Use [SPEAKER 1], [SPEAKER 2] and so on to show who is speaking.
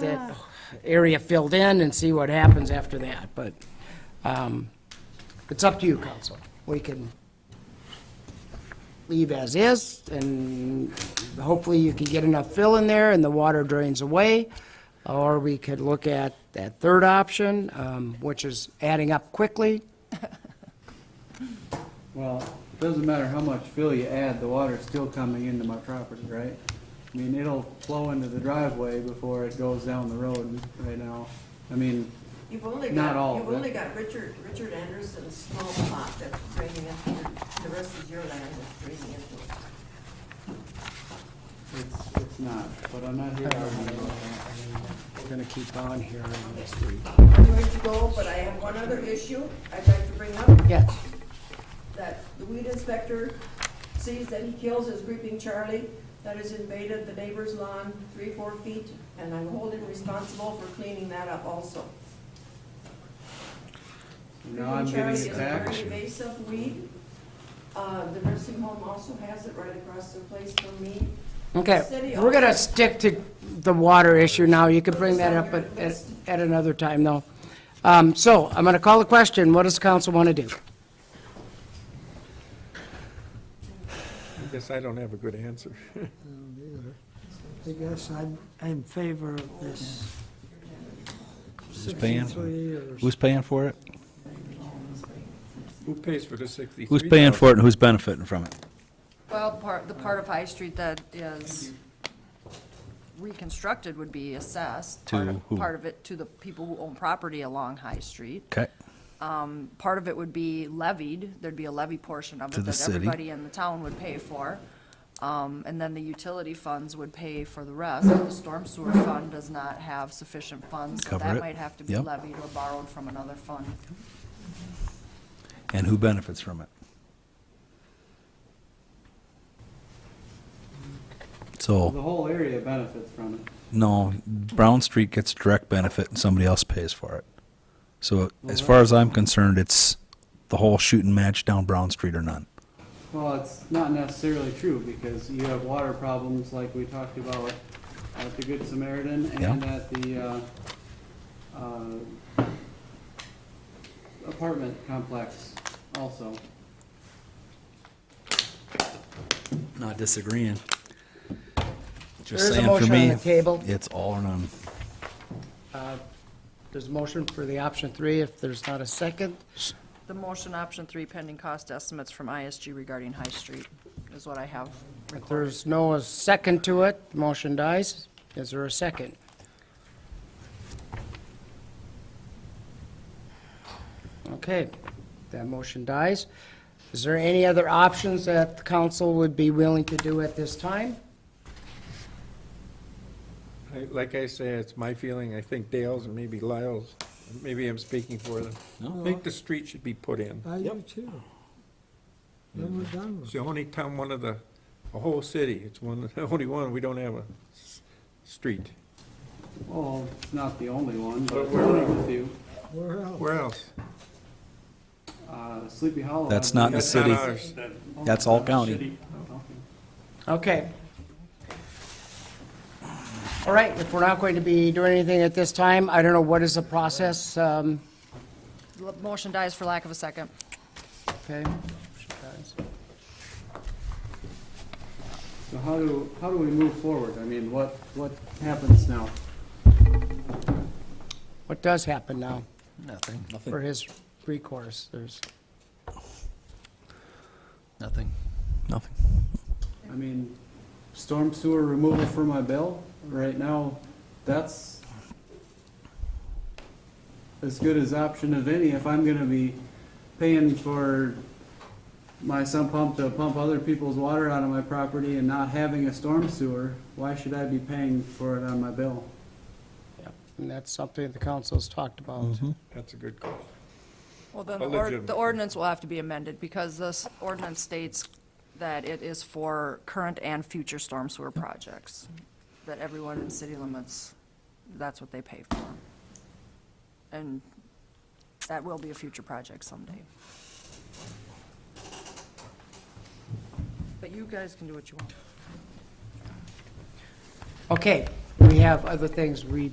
[SPEAKER 1] that area filled in and see what happens after that, but um, it's up to you, council. We can leave as is, and hopefully you can get enough fill in there and the water drains away, or we could look at that third option, um, which is adding up quickly.
[SPEAKER 2] Well, it doesn't matter how much fill you add, the water's still coming into my property, right? I mean, it'll flow into the driveway before it goes down the road right now. I mean,
[SPEAKER 3] You've only
[SPEAKER 2] Not
[SPEAKER 3] got,
[SPEAKER 2] all,
[SPEAKER 3] you've
[SPEAKER 2] but-
[SPEAKER 3] only got Richard, Richard Anderson's small plot that's draining into, your- the rest is your land that's draining into it.
[SPEAKER 2] it's, it's not, but I'm not here arguing about that.
[SPEAKER 1] We're going to keep on here on this week.
[SPEAKER 3] I'm going to go, but I have one other issue I'd like to bring up,
[SPEAKER 1] Yeah,
[SPEAKER 3] that the weed inspector sees that he kills his creeping Charlie that has invaded the neighbor's lawn three, four feet, and I'm holding responsible for cleaning that up also.
[SPEAKER 2] Now I'm
[SPEAKER 3] Creeping Charlie
[SPEAKER 2] getting
[SPEAKER 3] is a very
[SPEAKER 2] attacked.
[SPEAKER 3] invasive weed. Uh, the nursing home also has it right across the place from me.
[SPEAKER 1] okay.
[SPEAKER 3] City
[SPEAKER 1] We're going to
[SPEAKER 3] also-
[SPEAKER 1] stick to the water issue now. You can bring that up at- at at another time, though. Um, So I'm going to call the question. What does council want to do?
[SPEAKER 4] I guess I don't have a good answer.
[SPEAKER 5] I guess I'm, I'm in favor of this.
[SPEAKER 6] Who's paying,
[SPEAKER 5] Three years.
[SPEAKER 6] who's paying for it?
[SPEAKER 4] Who pays for the sixty-three?
[SPEAKER 6] Who's paying for it and who's benefiting from it?
[SPEAKER 7] Well, part, the part of
[SPEAKER 3] Uh,
[SPEAKER 7] High Street that is reconstructed would be assessed.
[SPEAKER 6] To
[SPEAKER 7] Part of-
[SPEAKER 6] who?
[SPEAKER 7] Part of it to the people who own property along High Street.
[SPEAKER 6] Okay,
[SPEAKER 7] Part of it would be levied, there'd be a levy portion of
[SPEAKER 6] To
[SPEAKER 7] it
[SPEAKER 6] the
[SPEAKER 7] that
[SPEAKER 6] city.
[SPEAKER 7] everybody in the town would pay for. Um, And then the utility funds would pay for the rest. The storm sewer fund does not have sufficient funds, so
[SPEAKER 6] Cover
[SPEAKER 7] that
[SPEAKER 6] it.
[SPEAKER 7] might have to be
[SPEAKER 6] Yep.
[SPEAKER 7] levied or borrowed from another fund.
[SPEAKER 6] and who benefits from it?
[SPEAKER 2] The
[SPEAKER 6] So,
[SPEAKER 2] whole area benefits from it.
[SPEAKER 6] no, Brown Street gets direct benefit and somebody else pays for it. So as far as I'm concerned, it's the whole shooting match down Brown Street or none.
[SPEAKER 2] Well, it's not necessarily true, because you have water problems like we talked about at the Good Samaritan and
[SPEAKER 6] Yeah.
[SPEAKER 2] at the, uh, uh, apartment complex also.
[SPEAKER 6] Not disagreeing.
[SPEAKER 1] There's
[SPEAKER 6] Just
[SPEAKER 1] a
[SPEAKER 6] saying for
[SPEAKER 1] motion on
[SPEAKER 6] me,
[SPEAKER 1] the table.
[SPEAKER 6] it's all or none.
[SPEAKER 1] There's a motion for the option three. If there's not a second,
[SPEAKER 7] The motion option three pending cost estimates from ISG regarding High Street is what I have
[SPEAKER 1] if there's no second to it, motion dies. Is there a second? Okay, that motion dies. Is there any other options that the council would be willing to do at this time?
[SPEAKER 4] Like I say, it's my feeling, I think Dale's and maybe Lyle's, maybe I'm speaking for them. I think the street should be put in.
[SPEAKER 5] I do too. Then we're done
[SPEAKER 4] It's
[SPEAKER 5] with
[SPEAKER 4] the only town, one of the, a whole city, it's one, the only one, we don't have a s- street.
[SPEAKER 2] Well, it's not the only one, but
[SPEAKER 4] But we're-
[SPEAKER 2] one of the few.
[SPEAKER 5] it. Where else?
[SPEAKER 4] Where else?
[SPEAKER 2] Uh, Sleepy Hollow.
[SPEAKER 6] That's
[SPEAKER 2] has
[SPEAKER 6] not in the
[SPEAKER 4] That's
[SPEAKER 6] city.
[SPEAKER 4] not ours.
[SPEAKER 6] That's all county.
[SPEAKER 2] Okay.
[SPEAKER 1] Okay. All right, if we're not going to be doing anything at this time, I don't know, what is the process? Um,
[SPEAKER 7] L- Motion dies for lack of a second.
[SPEAKER 1] Okay. motion dies.
[SPEAKER 2] So how do, how do we move forward? I mean, what, what happens now?
[SPEAKER 1] What does happen now
[SPEAKER 8] Nothing,
[SPEAKER 1] for
[SPEAKER 8] nothing,
[SPEAKER 1] his recourse? There's,
[SPEAKER 8] nothing.
[SPEAKER 6] Nothing.
[SPEAKER 2] I mean, storm sewer removal for my bill, right now, that's as good as option of any if I'm gonna be paying for my sump pump to pump other people's water out of my property and not having a storm sewer, why should I be paying for it on my bill?
[SPEAKER 1] and that's something the council's talked about.
[SPEAKER 4] That's a good call.
[SPEAKER 7] Well, then,
[SPEAKER 4] A
[SPEAKER 7] the or-
[SPEAKER 4] legitimate-
[SPEAKER 7] the ordinance will have to be amended, because this ordinance states that it is for current and future storm sewer projects, that everyone in city limits, that's what they pay for. And that will be a future project someday. But you guys can do what you want.
[SPEAKER 1] Okay, we have other things we